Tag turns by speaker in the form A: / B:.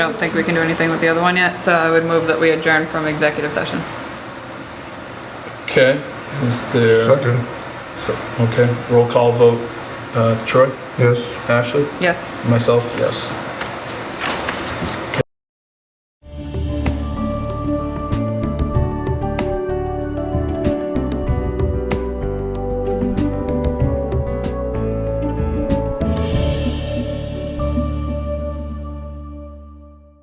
A: I don't think we can do anything with the other one yet, so I would move that we adjourn from executive session.
B: Okay, is there,
C: Second,
B: so- okay, roll call vote. Uh, Troy,
C: yes.
B: Ashley,
A: Yes.
B: myself, yes.